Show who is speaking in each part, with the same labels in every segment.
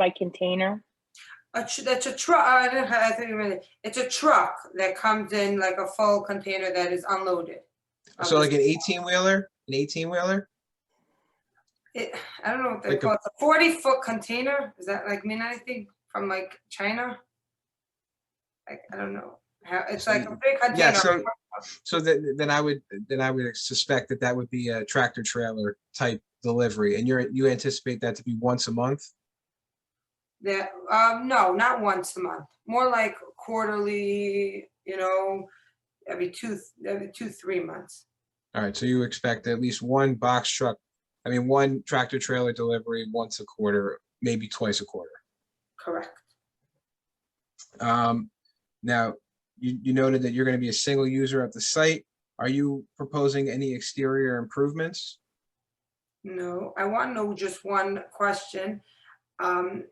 Speaker 1: by container?
Speaker 2: A tr- that's a truck, I don't know, I think, really- it's a truck that comes in like a full container that is unloaded. Um,
Speaker 3: So like an eighteen wheeler, an eighteen wheeler?
Speaker 2: It, I don't know what they
Speaker 3: Like a-
Speaker 2: call it, a forty foot container, does that like mean anything from like China? Like, I don't know, how, it's like a big
Speaker 3: Yeah,
Speaker 2: container,
Speaker 3: so, so then, then I would, then I would suspect that that would be a tractor trailer type delivery and you're, you anticipate that to be once a month?
Speaker 2: that, um, no, not once a month, more like quarterly, you know, every two, every two, three months.
Speaker 3: All right, so you expect at least one box truck, I mean, one tractor trailer delivery once a quarter, maybe twice a quarter.
Speaker 2: Correct.
Speaker 3: Um, now, you, you noted that you're gonna be a single user at the site. Are you proposing any exterior improvements?
Speaker 2: No, I want to know just one question. Um,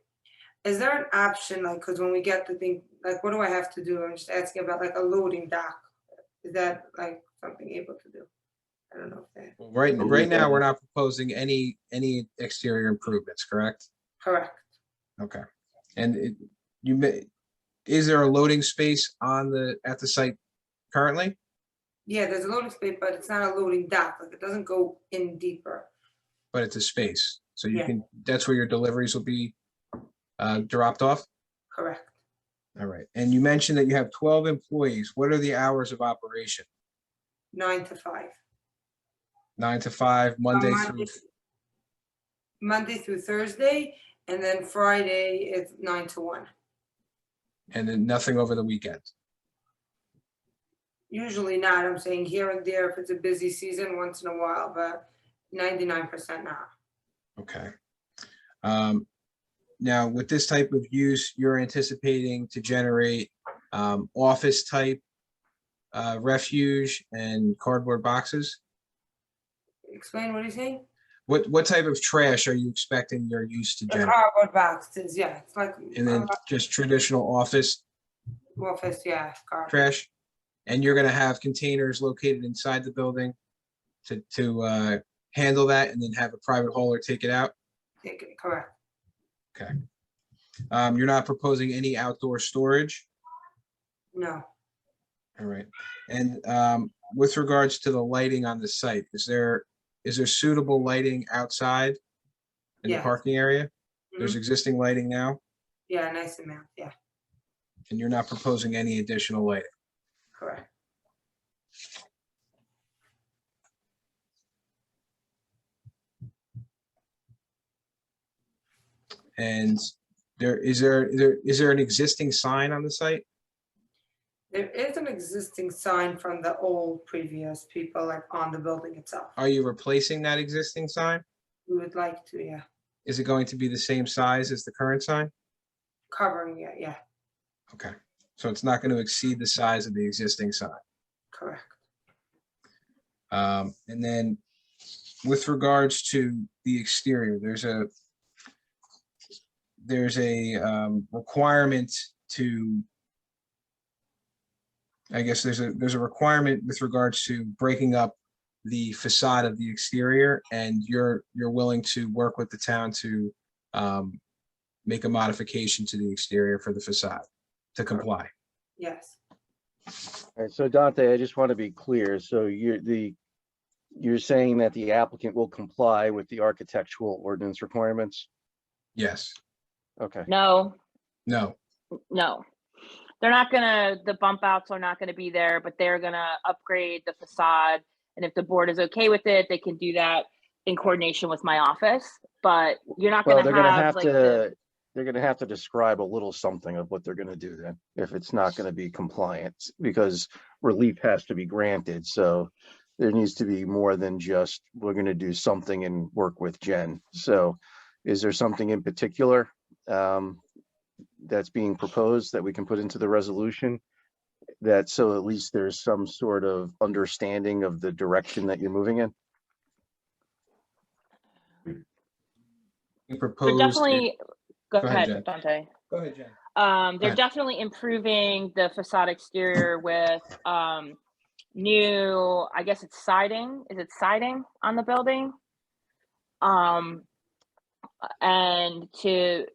Speaker 2: is there an option, like, because when we get the thing, like, what do I have to do? I'm just asking about like a loading dock. Is that like something able to do? I don't know if that,
Speaker 3: Well, Right, right now, we're not proposing any, any exterior improvements, correct?
Speaker 2: correct.
Speaker 3: Okay. And it, you may, is there a loading space on the, at the site currently?
Speaker 2: Yeah, there's a loading space, but it's not a loading dock, like, it doesn't go in deeper.
Speaker 3: But it's a space, so you
Speaker 2: Yeah.
Speaker 3: can, that's where your deliveries will be, uh, dropped off?
Speaker 2: Correct.
Speaker 3: All right, and you mentioned that you have twelve employees. What are the hours of operation?
Speaker 2: Nine to five.
Speaker 3: Nine to five,
Speaker 2: On
Speaker 3: Monday through,
Speaker 2: Monday through Thursday, and then Friday it's nine to one.
Speaker 3: and then nothing over the weekend?
Speaker 2: Usually not, I'm saying here and there if it's a busy season, once in a while, but ninety-nine percent not.
Speaker 3: Okay. Um, now with this type of use, you're anticipating to generate, um, office type, uh, refuge and cardboard boxes?
Speaker 2: Explain what he's saying?
Speaker 3: What, what type of trash are you expecting your use to
Speaker 2: The
Speaker 3: generate?
Speaker 2: cardboard boxes, yeah, it's like
Speaker 3: And then
Speaker 2: uh,
Speaker 3: just traditional office
Speaker 2: office, yeah, cardboard.
Speaker 3: trash? And you're gonna have containers located inside the building to, to, uh, handle that and then have a private hauler take it out?
Speaker 2: Take it, Correct,
Speaker 3: Um, you're not proposing any outdoor storage?
Speaker 2: no,
Speaker 3: All right. And, um, with regards to the lighting on the site, is there, is there suitable lighting outside? In the
Speaker 2: Yes. Mm-hmm.
Speaker 3: parking area? There's existing lighting now,
Speaker 2: yeah, nice amount, yeah,
Speaker 3: and you're not proposing any additional lighting?
Speaker 2: correct.
Speaker 3: And there, is there, there, is there an existing sign on the site?
Speaker 2: There is an existing sign from the old previous people, like on the building itself.
Speaker 3: Are you replacing that existing sign?
Speaker 2: We would like to, yeah,
Speaker 3: Is it going to be the same size as the current sign?
Speaker 2: covering it, yeah,
Speaker 3: Okay, so it's not going to exceed the size of the existing sign?
Speaker 2: correct.
Speaker 3: Um, and then with regards to the exterior, there's a there's a um, requirement to I guess there's a there's a requirement with regards to breaking up the facade of the exterior and you're you're willing to work with the town to um, make a modification to the exterior for the facade to comply.
Speaker 2: Yes,
Speaker 4: All right, so Dante, I just want to be clear. So you're the, you're saying that the applicant will comply with the architectural ordinance requirements?
Speaker 3: Yes,
Speaker 4: Okay,
Speaker 1: No,
Speaker 3: no,
Speaker 1: no. They're not gonna, the bump outs are not gonna be there, but they're gonna upgrade the facade. And if the board is okay with it, they can do that in coordination with my office, but you're not
Speaker 4: well,
Speaker 1: gonna
Speaker 4: they're gonna
Speaker 1: have
Speaker 4: have
Speaker 1: like the.
Speaker 4: to, they're gonna have to describe a little something of what they're gonna do then, if it's not gonna be compliant, because relief has to be granted, so there needs to be more than just, we're gonna do something and work with Jen. So is there something in particular um, that's being proposed that we can put into the resolution? That so at least there's some sort of understanding of the direction that you're moving in?
Speaker 3: we
Speaker 1: They're
Speaker 3: proposed.
Speaker 1: definitely, go
Speaker 3: Go ahead, Jen.
Speaker 1: ahead, Dante.
Speaker 3: Go ahead, Jen.
Speaker 1: Um, they're
Speaker 3: Right.
Speaker 1: definitely improving the facade exterior with, um, new, I guess it's siding, is it siding on the building? Um, and to